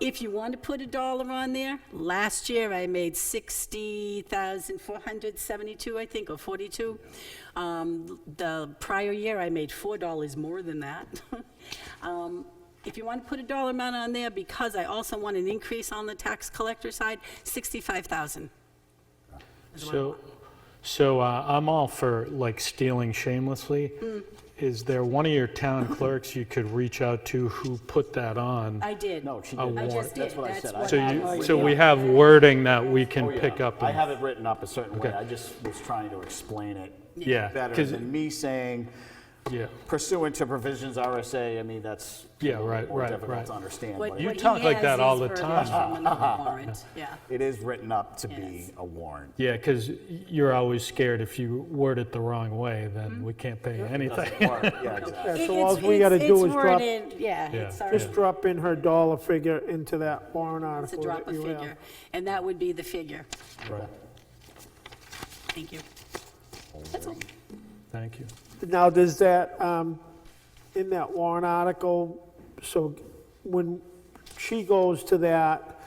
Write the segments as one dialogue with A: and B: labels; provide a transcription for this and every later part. A: If you want to put a dollar on there, last year I made 60,472, I think, or 42. Um, The prior year, I made $4 more than that. Um, If you want to put a dollar amount on there, because I also want an increase on the tax collector side, 65,000.
B: So, so uh, I'm all for like stealing shamelessly. Is there one of your town clerks you could reach out to who put that on?
A: I did.
C: No, she
B: A
C: didn't.
A: I
B: warrant.
A: just did.
C: That's what I said. I
B: Oh, So you,
C: have it written
B: so we
C: up.
B: have wording that we can
C: Oh, yeah.
B: pick up.
C: I
B: and-
C: have it written up a certain way.
B: Okay.
C: I just was trying to explain it
B: Yeah.
C: better
B: 'cause-
C: than me saying
B: Yeah,
C: pursuant to provisions RSA. I mean, that's
B: Yeah, right,
C: more
B: right,
C: difficult
B: right.
C: to understand.
A: What-
C: but
B: You
A: what he
B: talk like
A: has
B: that
A: is
B: all the
A: for
B: time.
A: adoption on the warrant, Yeah.
C: it is written up to
A: Yes.
C: be a warrant.
B: yeah, because you're always scared if you word it the wrong way, then we can't pay you anything.
C: Or- yeah, exactly.
D: Yeah, so
A: It's-
D: all we
A: it's-
D: gotta do
A: it's
D: is drop-
A: worded- Yeah, it's
B: Yeah.
A: already.
D: Just drop in her dollar figure into that warrant
A: to
D: article
A: drop
D: that
A: a
D: you have.
A: figure, and that would be the figure.
B: Right.
A: Thank you. That's all.
B: Thank you.
D: Now, does that, um, in that warrant article, so when she goes to that,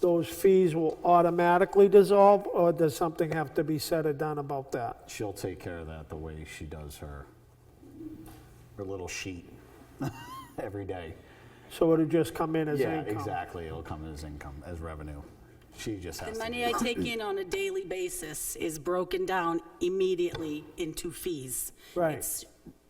D: those fees will automatically dissolve, or does something have to be said or done about that?
C: She'll take care of that the way she does her her little sheet every day.
D: So it'll just come in as
C: yeah,
D: income?
C: exactly. It'll come as income, as revenue. She just has
A: The
C: to
A: money I take in on a daily basis is broken down immediately into fees.
D: Right.
A: It's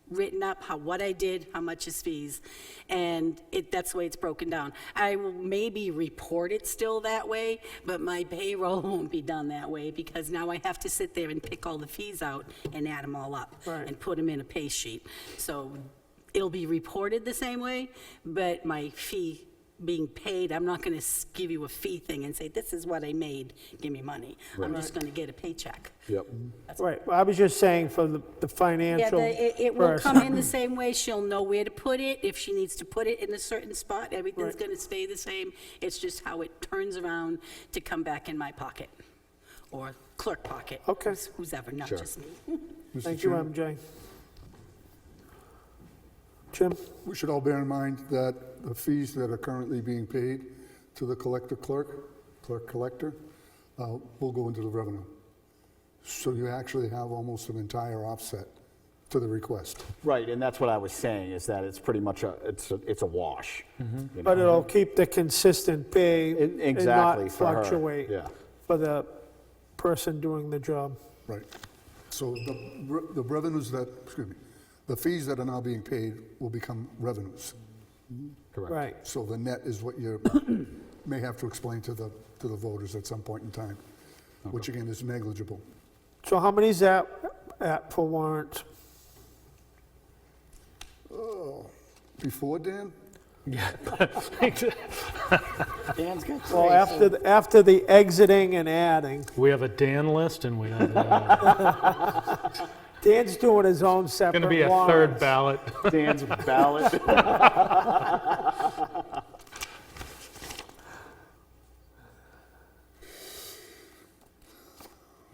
A: written up, how, what I did, how much is fees, and it, that's the way it's broken down. I will maybe report it still that way, but my payroll won't be done that way, because now I have to sit there and pick all the fees out and add them all up.
D: Right.
A: And put them in a pay sheet. So it'll be reported the same way, but my fee being paid, I'm not going to give you a fee thing and say, this is what I made, give me money. I'm just going to get a paycheck.
D: Right, well, I was just saying for the
A: Yeah,
D: the financial
A: the- it, it will come
D: person.
A: in the same way. She'll know where to put it. If she needs to put it in a certain spot, everything's
D: Right.
A: going to stay the same. It's just how it turns around to come back in my pocket or clerk pocket.
D: Okay.
A: who's- Who's ever, not just me.
D: Thank you, MJ. Jim?
E: We should all bear in mind that the fees that are currently being paid to the collector clerk, clerk collector, uh, will go into the revenue. So you actually have almost an entire offset to the request.
C: Right, and that's what I was saying, is that it's pretty much a, it's a, it's a wash. you know?
D: But it'll keep the consistent pay
C: E-
D: and
C: exactly,
D: not
C: for her,
D: fluctuate
C: yeah.
D: for the person doing the job.
E: Right. So the re- the revenues that, excuse me, the fees that are now being paid will become revenues.
D: Right,
E: So the net is what you may have to explain to the, to the voters at some point in time, which again is negligible.
D: so how many's that at for warrants?
E: Before, Dan?
C: Dan's got
D: Well, after, the- after the exiting and adding,
B: We have a Dan list and we have, uh,
D: Dan's doing his own separate
B: gonna be a third
D: warrants.
B: ballot.
C: Dan's ballot.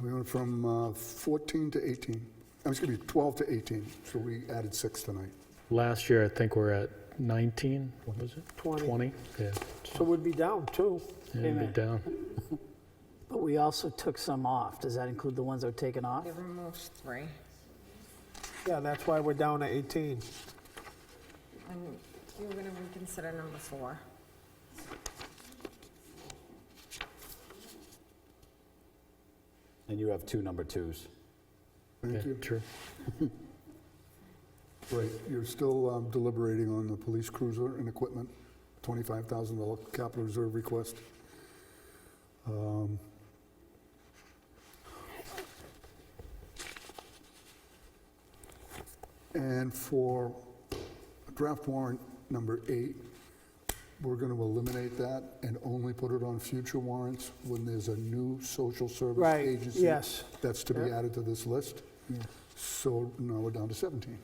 E: We went from uh, 14 to 18, I'm excuse me, 12 to 18, so we added six tonight.
B: Last year, I think we're at 19, what was it?
D: Twenty.
B: 20, yeah,
D: So we'd be down two.
B: yeah, it'd be down.
F: But we also took some off. Does that include the ones that were taken off?
G: They removed three.
D: Yeah, that's why we're down to 18.
G: And you're going to reconsider number four.
C: And you have two number twos.
E: Thank
B: Yeah,
E: you.
B: True.
E: Right, you're still um, deliberating on the police cruiser and equipment, $25,000 capital reserve request. Um, And for draft warrant number eight, we're going to eliminate that and only put it on future warrants when there's a new social service
D: Right,
E: agency.
D: yes.
E: That's to be
D: Yeah.
E: added to this list. So now we're down to 17.